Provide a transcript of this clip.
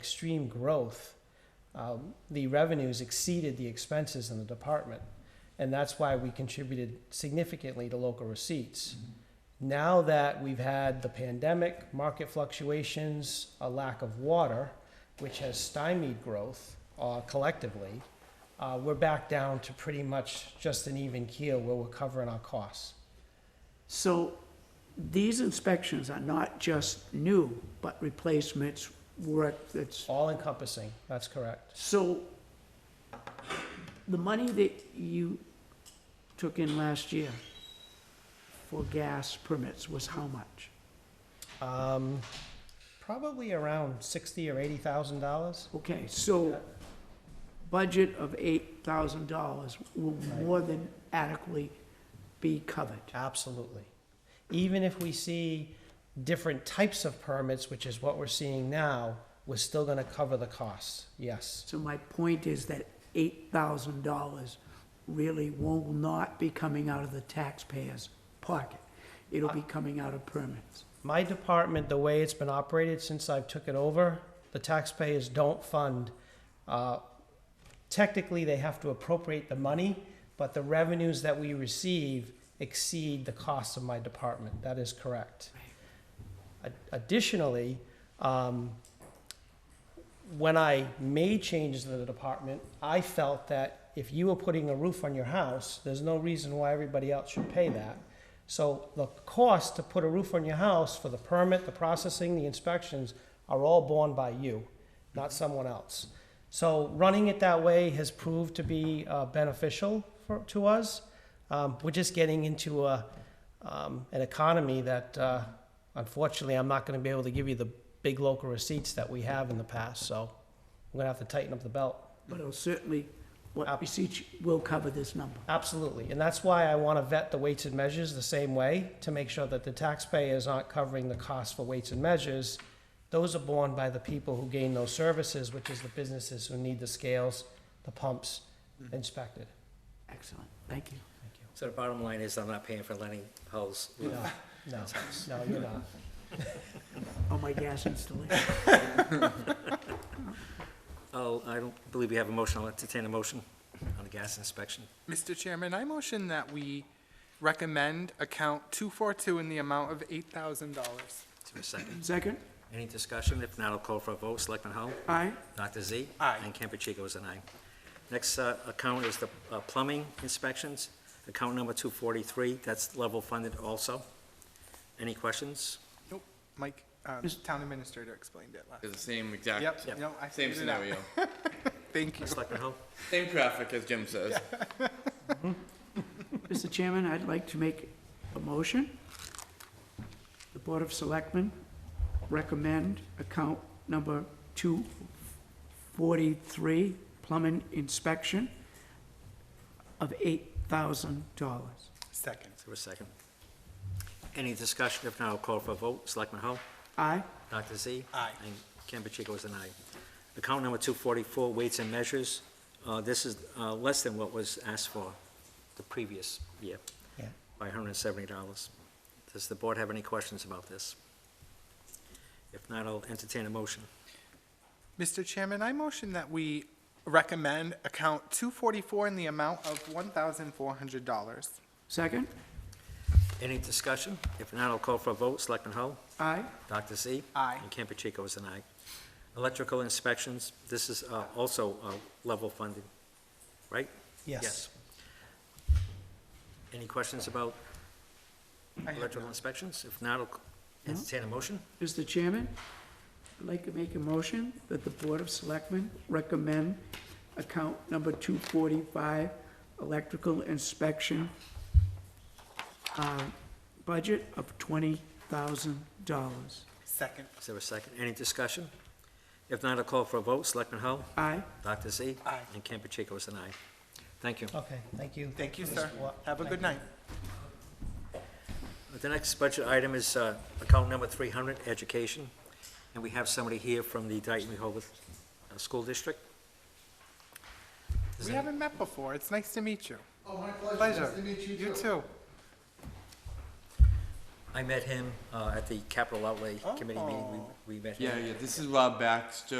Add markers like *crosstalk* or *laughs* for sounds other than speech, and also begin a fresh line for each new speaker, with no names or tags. extreme growth, um, the revenues exceeded the expenses in the department. And that's why we contributed significantly to local receipts. Now that we've had the pandemic, market fluctuations, a lack of water, which has stymied growth uh, collectively, uh, we're back down to pretty much just an even keel where we're covering our costs.
So these inspections are not just new, but replacements, work that's,
All encompassing, that's correct.
so the money that you took in last year for gas permits was how much?
Um, probably around sixty or eighty thousand dollars.
Okay, so budget of eight thousand dollars will more than adequately be covered.
Absolutely. Even if we see different types of permits, which is what we're seeing now, we're still gonna cover the costs, yes.
So my point is that eight thousand dollars really will not be coming out of the taxpayer's pocket. It'll be coming out of permits.
My department, the way it's been operated since I've took it over, the taxpayers don't fund, uh, technically, they have to appropriate the money, but the revenues that we receive exceed the costs of my department. That is correct. Ad- Additionally, um, when I made changes to the department, I felt that if you were putting a roof on your house, there's no reason why everybody else should pay that. So the cost to put a roof on your house for the permit, the processing, the inspections are all borne by you, not someone else. So running it that way has proved to be uh, beneficial for, to us. Um, we're just getting into a, um, an economy that uh, unfortunately I'm not going to be able to give you the big local receipts that we have in the past. So we're going to have to tighten up the belt.
But it'll certainly, what receipts will cover this number.
Absolutely. And that's why I want to vet the weights and measures the same way to make sure that the taxpayers aren't covering the cost for weights and measures. Those are borne by the people who gain those services, which is the businesses who need the scales, the pumps inspected.
Excellent, thank you.
So the bottom line is I'm not paying for Lenny Hull's
No, no, no, you're not.
Oh, my gas installation.
Oh, I don't believe we have a motion. I'll entertain a motion on the gas inspection.
Mr. Chairman, I motion that we recommend account 242 in the amount of $8,000.
Is there a second?
Second,
Any discussion? If not, I'll call for a vote. Selectman Hull?
aye,
Dr. Z?
Aye.
And Campuchico is an aye. Next uh, account is the uh, plumbing inspections, account number 243. That's level funded also. Any questions?
Nope, Mike, uh,
Mis-
Town Administrator explained it last.
It's the same exact.
Yep, no, I
Same
figured it out.
scenario.
Thank you.
Selectman Hull?
same traffic as
*laughs*
Jim says.
Mr. Chairman, I'd like to make a motion. The Board of Selectmen recommend account number 243, plumbing inspection of $8,000.
Second.
Is there a second? Any discussion? If not, I'll call for a vote. Selectman Hull?
Aye,
Dr. Z?
Aye.
And Campuchico is an aye. Account number 244, weights and measures. Uh, This is uh, less than what was asked for the previous year
Yeah.
by $170. Does the board have any questions about this? If not, I'll entertain a motion.
Mr. Chairman, I motion that we recommend account 244 in the amount of $1,400.
second,
Any discussion? If not, I'll call for a vote. Selectman Hull?
aye,
Dr. Z?
Aye.
And Campuchico is an aye. Electrical inspections, this is uh, also uh, level funded, right?
Yes.
Any questions about
I have
electrical
none.
inspections? If not, I'll entertain a motion.
Mr. Chairman, I'd like to make a motion that the Board of Selectmen recommend account number 245, electrical inspection, uh, budget of $20,000.
Second.
Is there a second? Any discussion? If not, I'll call for a vote. Selectman Hull?
Aye,
Dr. Z?
Aye.
And Campuchico is an aye. Thank you.
Okay, thank you.
Thank you, sir.
Wa-
Have a
thank
good
you.
night.
The next budget item is uh, account number 300, education. And we have somebody here from the Dayton Rehoboth uh, School District. Is
We
there-
haven't met before. It's nice to meet you.
Oh, my pleasure.
Pleasure.
Nice to meet you,
You too.
I met him uh, at the Capital Outlay Committee meeting. We we met him.
Yeah, yeah. This is Rob Baxter.